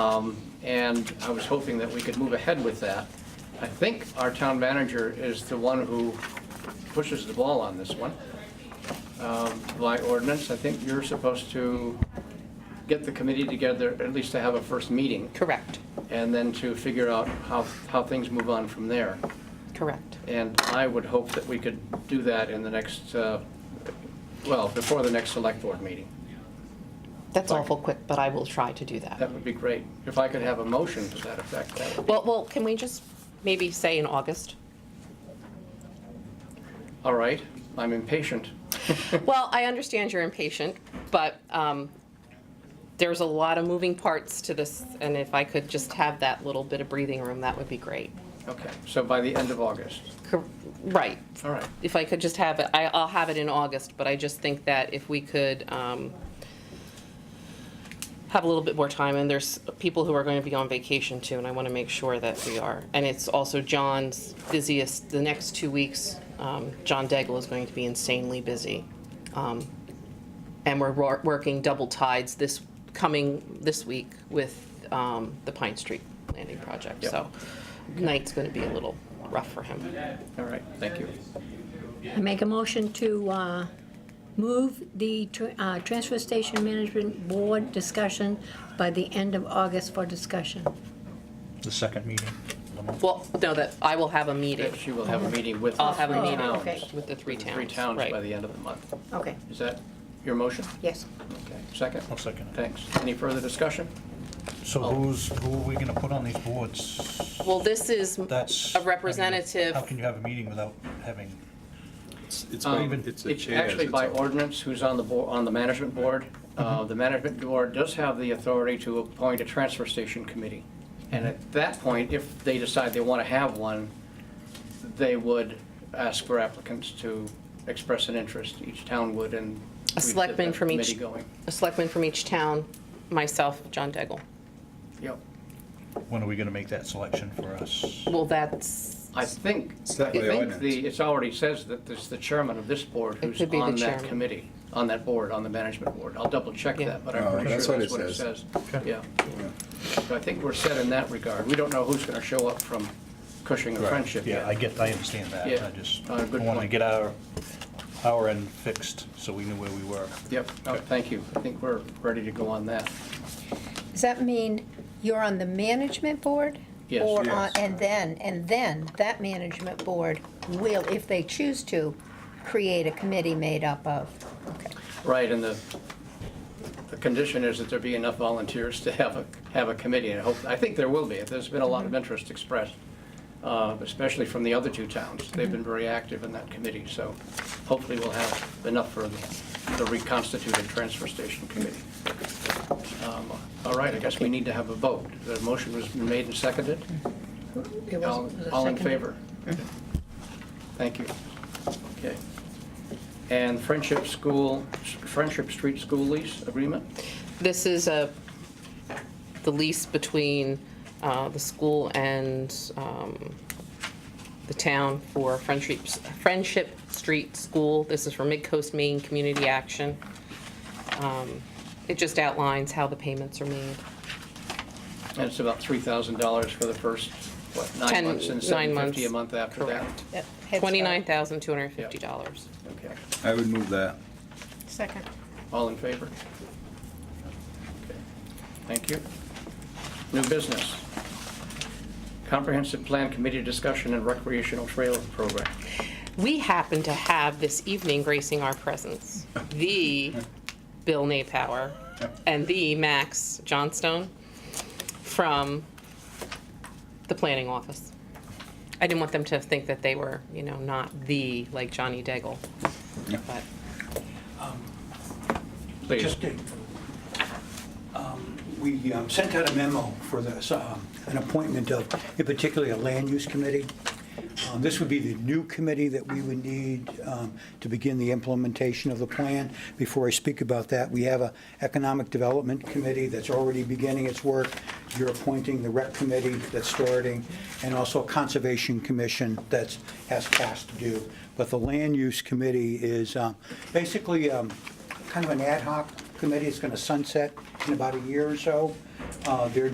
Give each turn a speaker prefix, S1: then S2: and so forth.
S1: Um, And I was hoping that we could move ahead with that. I think our town manager is the one who pushes the ball on this one. Um, By ordinance, I think you're supposed to get the committee together, at least to have a first meeting,
S2: Correct,
S1: and then to figure out how, how things move on from there.
S2: correct.
S1: And I would hope that we could do that in the next, uh, well, before the next select board meeting.
S2: That's awful quick, but I will try to do that.
S1: That would be great. If I could have a motion to that effect, that would be.
S2: Well, well, can we just maybe say in August?
S1: All right, I'm impatient.
S2: Well, I understand you're impatient, but um, there's a lot of moving parts to this, and if I could just have that little bit of breathing room, that would be great.
S1: Okay, so by the end of August.
S2: Cor- Right.
S1: All right,
S2: If I could just have it, I- I'll have it in August, but I just think that if we could um, have a little bit more time, and there's people who are going to be on vacation too, and I want to make sure that we are. And it's also John's busiest, the next two weeks, um, John Daigle is going to be insanely busy. Um, And we're wor- working double tides this coming, this week with um, the Pine Street Landing Project.
S1: Yep.
S2: So night's going to be a little rough for him.
S1: all right, thank you.
S3: I make a motion to uh, move the tr- uh, Transfer Station Management Board discussion by the end of August for discussion.
S4: The second meeting.
S2: Well, no, that, I will have a meeting.
S1: She will have a meeting with.
S2: I'll have a
S3: Oh,
S2: meeting
S3: okay.
S2: with the three towns.
S1: Three towns
S2: right.
S1: by the end of the month.
S3: Okay,
S1: Is that your motion?
S3: yes.
S1: Okay, Oh. second?
S4: I'll second it.
S1: Thanks. Any further discussion?
S4: So who's, who are we gonna put on these boards?
S2: Well, this is
S4: That's.
S2: a representative.
S4: How can you have a meeting without having,
S5: It's- It's,
S1: Um,
S5: by- it's a
S1: It's
S5: chair.
S1: actually
S5: it's Mm-hmm.
S1: by
S5: a-
S1: ordinance who's on the board, on the management board. Uh, The management board does have the authority to appoint a transfer station committee. And at that point, if they decide they want to have one, they would ask for applicants to express an interest. Each town would and. we'd
S2: A
S1: get
S2: selectman
S1: that
S2: from each-
S1: Committee going.
S2: A selectman from each town, myself, John Daigle.
S1: Yep.
S4: when are we gonna make that selection for us?
S2: Well, that's,
S1: I think,
S5: It's
S1: I
S5: that way
S1: think
S5: ordinance.
S1: the, it's already says that there's the chairman of this board who's
S2: could be the
S1: on that
S2: chairman.
S1: committee, on that board, on the management board. I'll double check
S2: Yeah.
S1: that, but I'm
S5: Oh,
S1: pretty
S5: that's
S1: sure
S5: what
S1: that's
S5: it
S1: what it
S5: says.
S1: says. Yeah. So I think we're set in that regard. We don't know who's going to show up from Cushing or Friendship yet.
S4: Yeah, I get, I understand that.
S1: Yeah.
S4: I just
S1: Uh, good
S4: wanna
S1: point.
S4: get our, our end fixed, so we knew where we were.
S1: Yep, no, thank you. I think we're ready to go on that.
S6: Does that mean you're on the management board?
S1: Yes.
S6: Or on,
S5: Yes.
S6: and then, and then that management board will, if they choose to, create a committee made up of, okay.
S1: Right, and the, the condition is that there be enough volunteers to have a, have a committee, and I hope, I think there will be. There's been a lot of interest expressed, uh, especially from the other two towns. They've been very active in that committee, so hopefully we'll have enough for the- the reconstituted transfer station committee. Um, All right, I guess we need to have a vote. The motion was made and seconded.
S3: It
S1: All
S3: wasn't the
S1: all in
S3: second.
S1: favor? Thank you. Okay. And Friendship School, Friendship Street School lease agreement?
S2: this is a, the lease between uh, the school and um, the town for Friendship, Friendship Street School. This is for Midcoast Maine Community Action. Um, It just outlines how the payments are made.
S1: And it's about $3,000 for the first, what, nine
S2: Ten-
S1: months and
S2: nine months.
S1: 750 a month after that?
S2: Correct.
S6: Yep, heads up.
S2: $29,250.
S1: Okay.
S5: I would move that.
S6: Second.
S1: All in favor? Okay. Thank you. New business. Comprehensive Plan Committee Discussion and Recreational Trail Program.
S2: We happen to have this evening gracing our presence, the Bill Napower and the Max Johnstone from the planning office. I didn't want them to think that they were, you know, not the, like Johnny Daigle.
S5: Yeah.
S2: But
S1: Please.
S7: Just did. Um, We um, sent out a memo for this, um, an appointment of, in particular, a land use committee. Um, This would be the new committee that we would need um, to begin the implementation of the plan. Before I speak about that, we have a economic development committee that's already beginning its work. You're appointing the rep committee that's starting, and also a conservation commission that's, has tasks to do. But the land use committee is um, basically um, kind of an ad hoc committee. It's going to sunset in about a year or so. Uh, Their